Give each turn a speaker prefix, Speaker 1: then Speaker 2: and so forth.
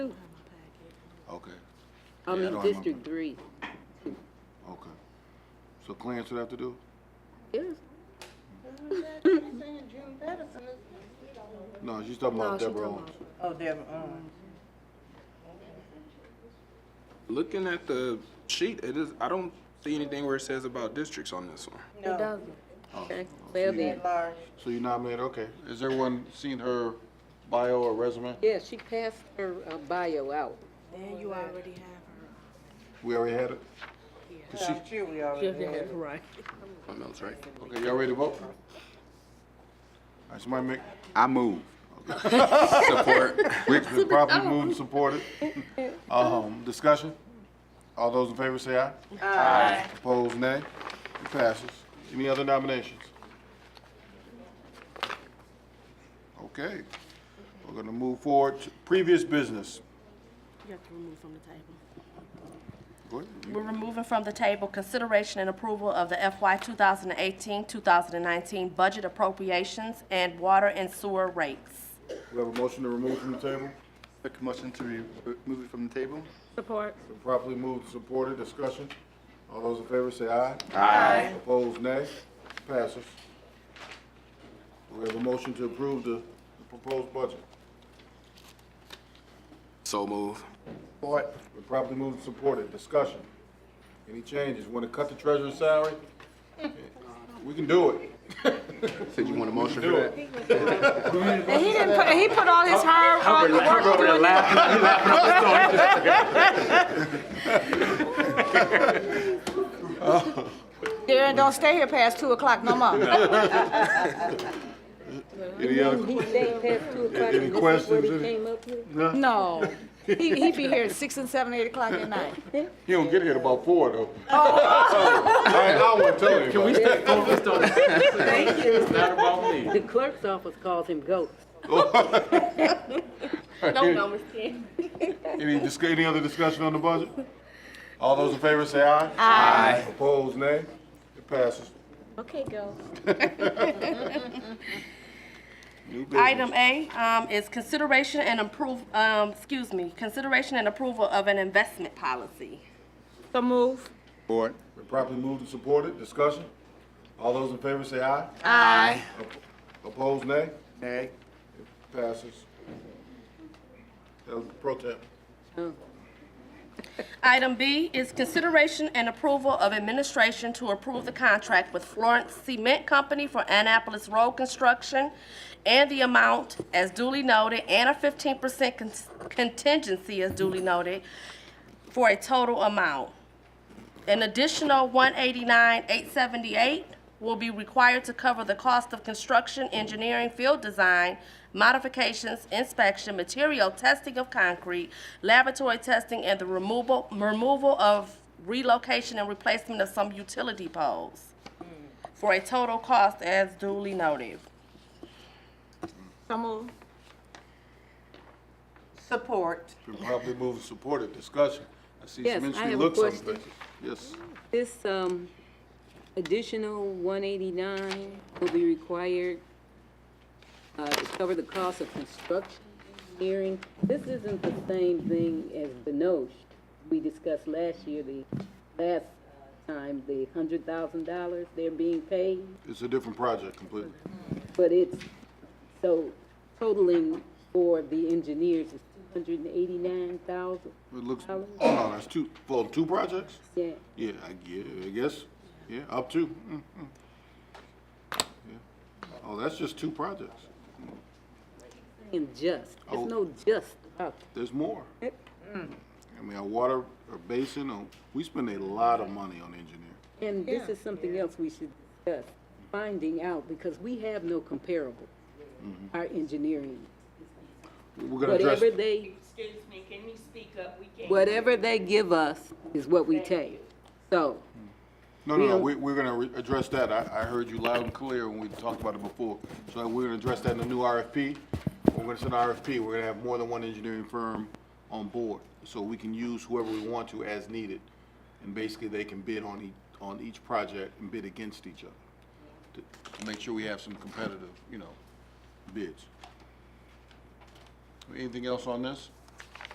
Speaker 1: Okay, Yeah, I
Speaker 2: I'm in
Speaker 1: don't
Speaker 2: District Three.
Speaker 1: okay. So Clarence would have to do?
Speaker 2: Yes.
Speaker 1: No, she's talking about
Speaker 3: No, she
Speaker 1: Deborah
Speaker 3: talking
Speaker 1: Owens.
Speaker 4: Oh, Deborah Owens.
Speaker 5: Looking at the sheet, it is, I don't see anything where it says about districts on this one.
Speaker 3: It
Speaker 4: No,
Speaker 3: doesn't.
Speaker 1: Oh.
Speaker 2: Okay. Well then,
Speaker 4: at large.
Speaker 1: So you nominated, okay. Has everyone seen her bio or resume?
Speaker 2: yeah, she passed her uh, bio out.
Speaker 3: Then you already have
Speaker 1: We already had it?
Speaker 4: No, I'm sure we already
Speaker 3: her.
Speaker 4: did.
Speaker 3: right.
Speaker 5: Oh, no, it's right.
Speaker 1: Okay, y'all ready to vote? All right, somebody make,
Speaker 6: I move.
Speaker 5: Support.
Speaker 1: it's been properly moved and supported. Um, discussion? All those in favor say aye. Aye. Opposed, nay. It passes. Any other nominations? Okay, we're gonna move forward to previous business.
Speaker 7: You have to remove from the table.
Speaker 1: Go ahead.
Speaker 7: We're removing from the table consideration and approval of the FY 2018, 2019 budget appropriations and water and sewer rates.
Speaker 1: We have a motion to remove from the table.
Speaker 6: Make a motion to remove it from the table?
Speaker 3: Support.
Speaker 1: Been Properly moved and supported. Discussion? All those in favor say aye. Aye. Opposed, nay. Passes. We have a motion to approve the the proposed budget.
Speaker 5: So move.
Speaker 1: Support. Been properly moved and supported. Discussion? Any changes? Want to cut the treasurer's salary? We can do it.
Speaker 5: Said you want a motion
Speaker 1: Do
Speaker 5: for that?
Speaker 1: it.
Speaker 3: And he didn't put, he put all his hard work, work
Speaker 6: over there laughing.
Speaker 4: Darren, don't stay here past two o'clock no more.
Speaker 1: Any other?
Speaker 2: He stayed past two o'clock.
Speaker 1: Any
Speaker 2: and this is
Speaker 1: questions?
Speaker 2: What he came up with?
Speaker 4: No, he, he be here at six and seven, eight o'clock at night.
Speaker 1: He don't get here till about four, though. I I wouldn't tell anybody. Can we
Speaker 2: The clerk's office calls him ghost.
Speaker 7: No, no, Ms. King.
Speaker 1: Any, disc- any other discussion on the budget? All those in favor say aye. Aye. Opposed, nay. It passes.
Speaker 3: Okay, go.
Speaker 1: New business.
Speaker 7: Item A um, is consideration and approve, um, excuse me, consideration and approval of an investment policy.
Speaker 3: So move.
Speaker 6: Support.
Speaker 1: Been properly moved and supported. Discussion? All those in favor say aye.
Speaker 4: Aye.
Speaker 1: Op- Opposed, nay.
Speaker 6: Nay.
Speaker 1: Passes. That was pro temp.
Speaker 7: Item B is consideration and approval of administration to approve the contract with Florence Cement Company for Annapolis Road Construction and the amount as duly noted and a fifteen percent contingency as duly noted for a total amount. An additional one eighty-nine, eight seventy-eight will be required to cover the cost of construction, engineering, field design, modifications, inspection, material testing of concrete, laboratory testing, and the removal, removal of relocation and replacement of some utility poles for a total cost as duly noted.
Speaker 3: So move.
Speaker 4: Support.
Speaker 1: Been properly moved and supported. Discussion? I see
Speaker 2: Yes,
Speaker 1: some
Speaker 2: I
Speaker 1: interesting
Speaker 2: have a
Speaker 1: looks on
Speaker 2: question.
Speaker 1: faces. Yes.
Speaker 2: This, um, additional one eighty-nine will be required, uh, to cover the cost of construction hearing. This isn't the same thing as Benoche. We discussed last year, the, last time, the hundred thousand dollars they're being paid,
Speaker 1: It's a different project completely.
Speaker 2: but it's, so totaling for the engineers is two hundred and eighty-nine thousand,
Speaker 1: It looks, oh no, that's two, for two projects?
Speaker 2: yeah.
Speaker 1: Yeah, I guess, I guess, yeah, up to. mm, mm. Yeah. Oh, that's just two projects.
Speaker 2: And just,
Speaker 1: Oh.
Speaker 2: there's no just about it.
Speaker 1: There's more. I mean, our water, our basin, uh, we spend a lot of money on engineering.
Speaker 2: And this is something else we should discuss, finding out, because we have no comparable, our engineering.
Speaker 1: We're gonna address,
Speaker 2: Whatever they,
Speaker 8: Excuse me, can you speak up? We can't.
Speaker 2: whatever they give us is what we take. So,
Speaker 1: no, no, no,
Speaker 2: we-
Speaker 1: we, we're gonna re- address that. I, I heard you loud and clear when we talked about it before. So we're gonna address that in the new RFP. We're gonna send an RFP, we're gonna have more than one engineering firm on board. So we can use whoever we want to as needed. And basically, they can bid on each, on each project and bid against each other. to- to make sure we have some competitive, you know, bids. Anything else on this?